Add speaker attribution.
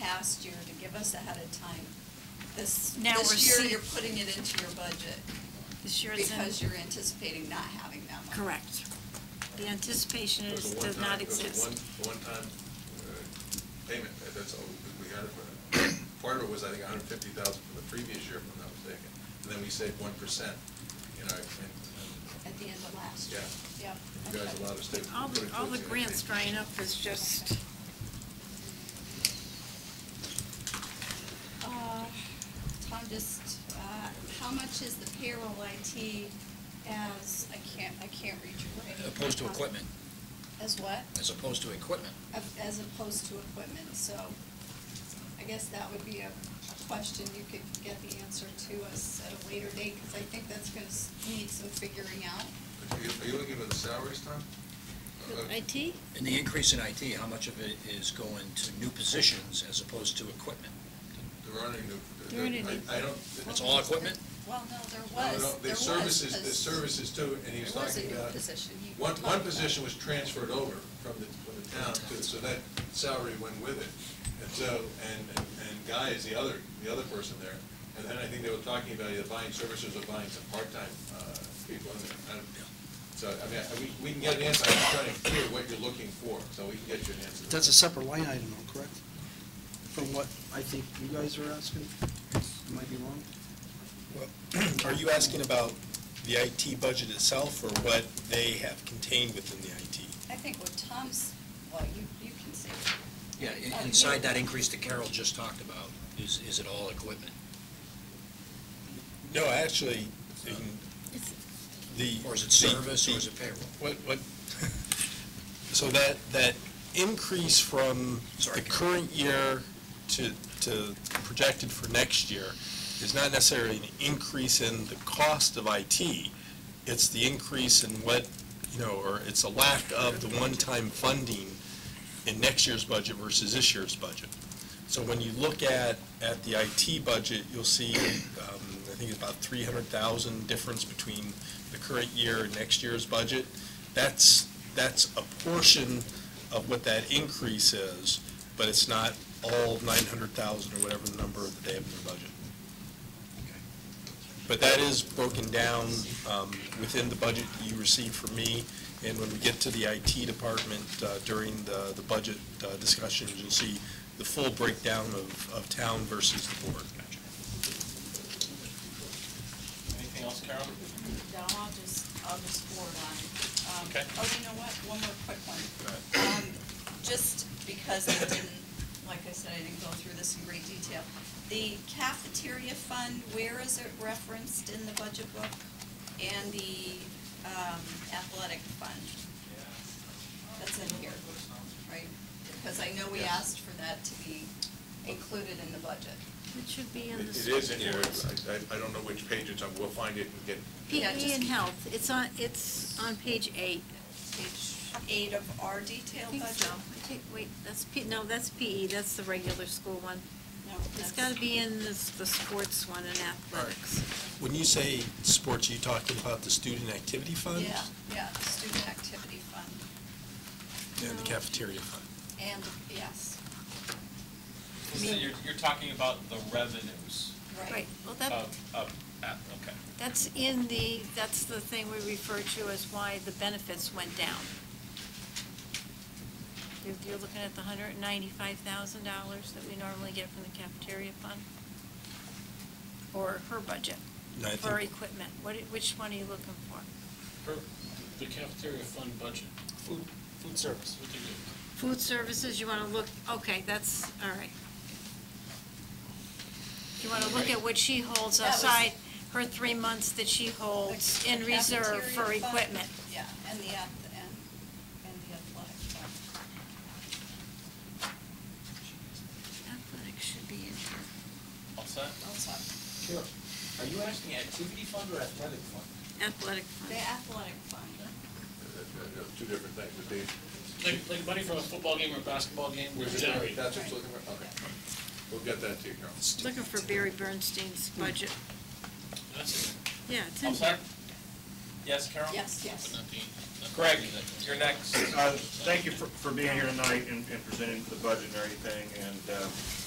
Speaker 1: last year to give us ahead of time. This,
Speaker 2: Now we're
Speaker 1: this year,
Speaker 2: see-
Speaker 1: you're putting it into your budget
Speaker 2: This year it's in.
Speaker 1: because you're anticipating not having that money.
Speaker 2: Correct. The anticipation
Speaker 3: It
Speaker 2: is,
Speaker 3: was a
Speaker 2: does
Speaker 3: one-time-
Speaker 2: not
Speaker 3: it was a
Speaker 2: exist.
Speaker 3: one- one-time uh, payment, Uh, that's all we- we had it for. Part of it was, I think, hundred and fifty thousand from the previous year, if I'm not mistaken, and then we saved one percent, you know, and,
Speaker 1: At the end of last year.
Speaker 3: Yeah.
Speaker 1: Yep.
Speaker 3: and you guys
Speaker 1: Okay.
Speaker 3: allowed us to.
Speaker 2: All
Speaker 3: put it
Speaker 2: the, all
Speaker 3: towards
Speaker 2: the grants drying up is just,
Speaker 1: Uh, Tom, just, uh, how much is the payroll IT as, I can't, I can't read your writing.
Speaker 4: Opposed to equipment,
Speaker 1: As what?
Speaker 4: as opposed to equipment.
Speaker 1: Of- As opposed to equipment, so I guess that would be a a question you could get the answer to us at a later date, because I think that's going to need some figuring out.
Speaker 3: Are you- Are you looking at the salaries, Tom? Uh,
Speaker 2: IT?
Speaker 4: And the increase in IT, how much of it is going to new positions as opposed to equipment?
Speaker 3: There aren't any new.
Speaker 2: There aren't any.
Speaker 3: I I don't.
Speaker 4: It's all equipment?
Speaker 1: Well, no, there
Speaker 3: No, no,
Speaker 1: was,
Speaker 3: the
Speaker 1: there was.
Speaker 3: services,
Speaker 1: a-
Speaker 3: the services too, and he was
Speaker 1: There was a
Speaker 3: talking
Speaker 1: new
Speaker 3: about.
Speaker 1: position you
Speaker 3: One,
Speaker 1: talked
Speaker 3: one
Speaker 1: about.
Speaker 3: position was transferred over from the, from the town too, so that salary went with it. And so, and, and and Guy is the other, the other person there. And then I think they were talking about either buying services or buying some part-time, uh, people in there. I don't- So, I mean, I- we, we can get an answer, I'm just trying to hear what you're looking for, so we can get you an answer.
Speaker 5: That's a separate line item, though, correct? From what I think you guys are asking? I Might be wrong.
Speaker 6: Are you asking about the IT budget itself, or what they have contained within the IT?
Speaker 1: I think what Tom's, well, you, you can say.
Speaker 4: Yeah,
Speaker 1: Uh,
Speaker 4: in- inside that increase that Carol just talked about, is, is it all equipment?
Speaker 6: No, actually, in the.
Speaker 4: Or is it
Speaker 6: the-
Speaker 4: service, or
Speaker 6: the-
Speaker 4: is it payroll?
Speaker 6: What, what, so that, that increase from
Speaker 4: Sorry.
Speaker 6: the current year to, to projected for next year is not necessarily an increase in the cost of IT. It's the increase in what, you know, or it's a lack of the one-time funding in next year's budget versus this year's budget. So when you look at, at the IT budget, you'll see, um, I think it's about three hundred thousand difference between the current year and next year's budget. That's, that's a portion of what that increase is, but it's not all nine hundred thousand or whatever the number that they have in their budget. But that is broken down, um, within the budget that you receive from me, and when we get to the IT department, uh, during the, the budget uh, discussions, you'll see the full breakdown of, of town versus the board.
Speaker 7: Anything else, Carol?
Speaker 1: No, I'll just, I'll just forward on. Um,
Speaker 7: Okay.
Speaker 1: Oh, you know what, one more quick one.
Speaker 7: Go
Speaker 1: Um, Just because I didn't, like I said, I didn't go through this in great detail. The cafeteria fund, where is it referenced in the budget book? And the um, athletic fund, that's in here, right? Because I know we asked for that to be included in the budget.
Speaker 2: It should be
Speaker 3: It
Speaker 2: in the.
Speaker 3: it is in here, I, I- I don't know which page it's on, we'll find it and get,
Speaker 1: Yeah,
Speaker 2: PE
Speaker 1: just-
Speaker 2: E and health, it's on, it's on page eight.
Speaker 1: Page eight of our
Speaker 2: I
Speaker 1: detailed
Speaker 2: think
Speaker 1: budget.
Speaker 2: so. I think- Wait, that's P, no, that's PE, that's the regular school one.
Speaker 1: No,
Speaker 2: It's
Speaker 1: that's-
Speaker 2: gotta be in this, the sports one and athletics.
Speaker 6: When you say sports, are you talking about the student activity fund?
Speaker 1: Yeah, yeah, the student activity fund,
Speaker 6: And the cafeteria fund?
Speaker 1: and, yes,
Speaker 7: So you're, you're talking about the revenues
Speaker 1: right.
Speaker 2: Right, well,
Speaker 3: Um,
Speaker 2: that,
Speaker 7: of, of, ah, okay.
Speaker 2: that's in the, that's the thing we refer to as why the benefits went down. You're, you're looking at the hundred and ninety-five thousand dollars that we normally get from the cafeteria fund? Or her budget,
Speaker 6: No, I think-
Speaker 2: for equipment, what, which one are you looking for?
Speaker 8: The cafeteria fund budget.
Speaker 5: Food, food service.
Speaker 8: What do you do?
Speaker 2: Food services, you wanna look, okay, that's, all right. You wanna look at what she holds
Speaker 1: That was-
Speaker 2: aside, her three months that she holds in
Speaker 1: The
Speaker 2: reserve for
Speaker 1: cafeteria fund,
Speaker 2: equipment.
Speaker 1: Yeah, and the, ath- and, and the athletic fund.
Speaker 2: Athletics should be in here.
Speaker 7: All set?
Speaker 1: Those are-
Speaker 9: Sure. Are you asking activity fund or athletic fund?
Speaker 2: Athletic
Speaker 1: The
Speaker 2: fund.
Speaker 1: athletic fund,
Speaker 3: uh, uh, two different things, but they,
Speaker 8: Like, like money from a football game or a basketball game
Speaker 3: We're
Speaker 8: was
Speaker 3: just-
Speaker 8: generated.
Speaker 3: That's what you're looking for, okay. We'll get that to you, Carol.
Speaker 2: Looking for Barry Bernstein's budget.
Speaker 8: That's it.
Speaker 2: Yeah, it's
Speaker 7: All
Speaker 2: in
Speaker 7: set?
Speaker 2: here.
Speaker 7: Yes, Carol?
Speaker 1: yes, yes.
Speaker 8: Not the- not the-
Speaker 7: Greg, you're next.
Speaker 10: Uh, Thank you for for being here tonight and and presenting the budget and everything, and uh,